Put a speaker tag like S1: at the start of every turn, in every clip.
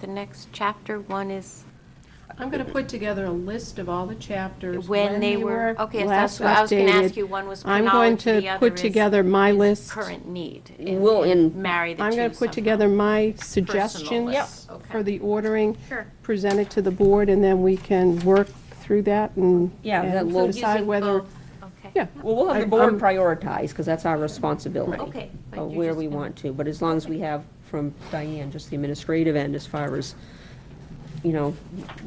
S1: the next chapter, one is
S2: I'm going to put together a list of all the chapters.
S1: when they were, okay, so that's
S2: last
S1: what I was going to ask
S2: updated.
S1: you, one was
S2: I'm going
S1: chronology, the
S2: to
S1: other
S2: put
S1: is
S2: together my list.
S1: current need. and-
S3: We'll
S1: and
S3: in,
S1: Marry the two
S2: I'm going to put together
S1: somehow.
S2: my suggestions
S1: list. Yep.
S2: for the ordering.
S1: Sure.
S2: Presented to the board, and then we can work through that and
S3: Yeah,
S2: and
S3: that
S1: So
S3: we'll
S2: decide
S1: using
S2: whether,
S1: both, Okay.
S2: yeah.
S3: well, we'll have the
S2: I-
S3: board
S2: I'm-
S3: prioritize, because that's our responsibility.
S1: Okay, but
S3: Of
S1: you're
S3: where
S1: Oh, just
S3: we
S1: gonna-
S3: want to, but as long as we have from Diane, just the administrative end, as far as, you know,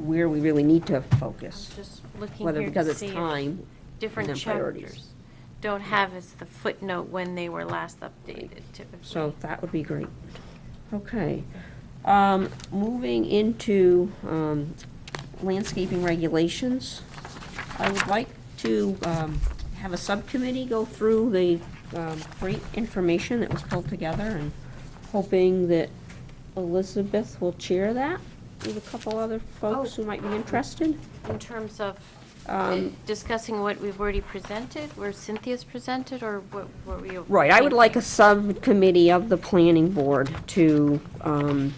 S3: where we really need to focus.
S1: Just looking
S3: Whether
S1: here
S3: because
S1: to
S3: it's
S1: see if
S3: time,
S1: different
S3: and then priorities.
S1: chapters don't have as the footnote when they were last updated
S3: so
S1: typically.
S3: that would be great. Okay. Um, Moving into um, landscaping regulations, I would like to um, have a subcommittee go through the um, great information that was pulled together, and hoping that Elizabeth will chair that with a couple other folks who might be interested.
S1: In terms of
S3: Um,
S1: discussing what we've already presented, where Cynthia's presented, or what what were you?
S3: Right, I would like a
S1: thinking?
S3: subcommittee of the planning board to um,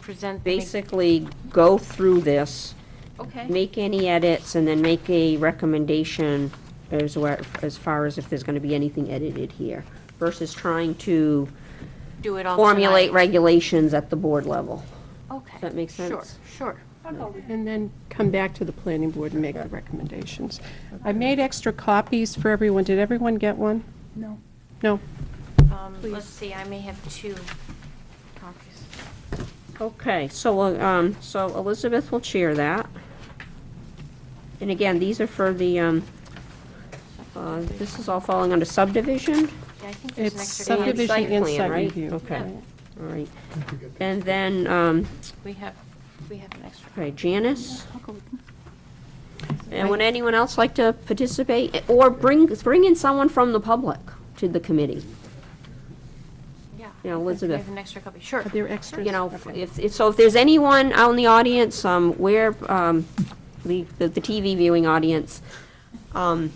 S1: Present. the-
S3: basically go through this,
S1: Okay,
S3: make any edits, and then make a recommendation as where, as far as if there's gonna be anything edited here, versus trying to
S1: do it all tonight.
S3: formulate regulations at the board level.
S1: Okay.
S3: that make sense?
S1: Sure, sure.
S2: And then come back to the planning board and make the recommendations. I made extra copies for everyone. Did everyone get one?
S4: No.
S2: No?
S1: Um, Let's see, I may have two copies.
S3: Okay, so, uh, um, so Elizabeth will chair that. And again, these are for the, um, uh, this is all falling under subdivision?
S1: Yeah, I think there's an
S2: It's
S1: extra.
S3: And
S1: copy.
S2: subdivision and
S3: plan,
S2: site
S3: right?
S2: review.
S3: Okay,
S2: right.
S3: all right. And then, um,
S1: We have, we have an extra.
S3: okay, Janice? And would anyone else like to participate, or bring, bring in someone from the public to the committee?
S1: Yeah.
S3: Yeah,
S1: We
S3: Elizabeth.
S1: have an extra copy, sure.
S2: Are there extras?
S3: You know,
S2: Okay.
S3: if, if- so if there's anyone out in the audience, um, where, um, the, the the TV viewing audience, um,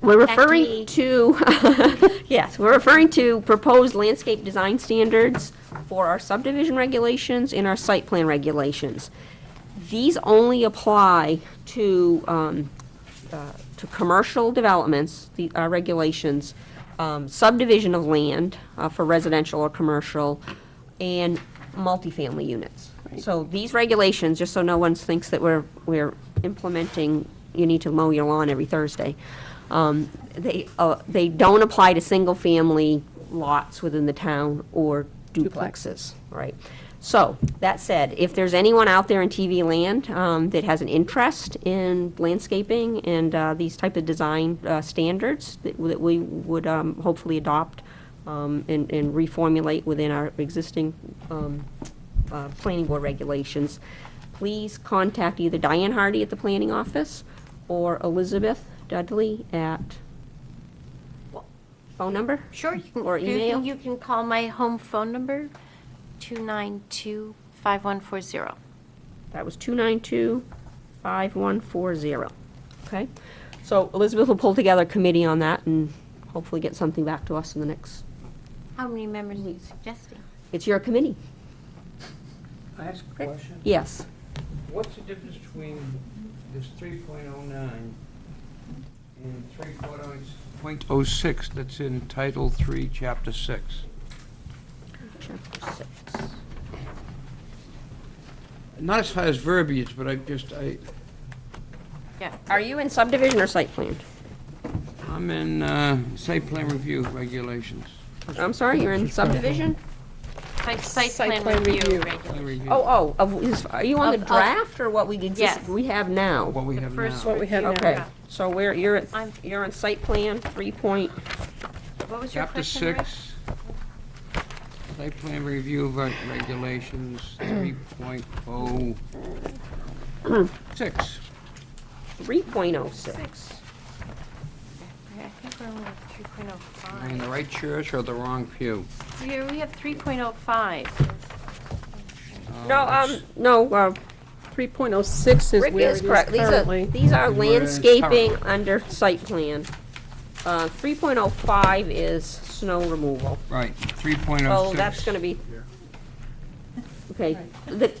S3: we're
S1: Back to
S3: referring
S1: me.
S3: to, yes, we're referring to proposed landscape design standards for our subdivision regulations and our site plan regulations. These only apply to, um, uh, to commercial developments, the uh, regulations, um, subdivision of land uh, for residential or commercial, and multifamily units. So these regulations, just so no one thinks that we're, we're implementing, you need to mow your lawn every Thursday, um, they, uh, they don't apply to single-family lots within the town or duplexes, right? So, that said, if there's anyone out there in TV land um, that has an interest in landscaping and uh, these type of design uh, standards that that we would um, hopefully adopt um, and and reformulate within our existing um, uh, planning board regulations, please contact either Diane Hardy at the planning office or Elizabeth Dudley at, phone number?
S1: Sure, you can.
S3: Or
S1: you can-
S3: email?
S1: You can call my home phone number, 292-5140.
S3: That was 292-5140. Okay? So Elizabeth will pull together a committee on that and hopefully get something back to us in the next,
S1: How many members are you suggesting?
S3: it's your committee.
S5: I ask a question?
S3: Yes.
S5: What's the difference between this three point oh nine and three point oh six that's in Title Three, Chapter Six?
S3: Chapter six.
S5: Not as far as verbiage, but I just, I,
S1: Yeah.
S3: Are you in subdivision or site plan?
S5: I'm in, uh, site plan review regulations.
S3: I'm sorry, you're in subdivision?
S1: Site- Site
S2: Site
S1: plan
S2: plan
S1: review
S2: review.
S5: Plan
S1: regulations.
S5: review.
S3: Oh, oh, of- is- are you on the
S1: Of- of-
S3: draft or what we
S1: Yes.
S3: exist, we have now?
S5: What we
S1: The
S5: have
S1: first
S5: now.
S2: What we have now.
S3: Okay, so where, you're, at-
S1: I'm-
S3: you're on site plan, three point,
S1: What was your
S5: Chapter
S1: question, Rick?
S5: Six, site plan review reg- regulations, three point oh six.
S3: three point oh six.
S1: I think we're only at
S5: Am I in the
S1: 3.05.
S5: right church or the wrong pew?
S1: Here, we have 3.05.
S5: Oh,
S3: No, um, no, uh,
S2: 3.06 is
S3: Rick
S2: where it
S3: is
S2: is
S3: correct. These are,
S2: currently.
S3: these are
S5: Where it's
S3: landscaping under site plan. Uh, 3.05 is snow removal. Oh,
S5: Right, 3.06.
S3: So that's gonna be. Okay, the,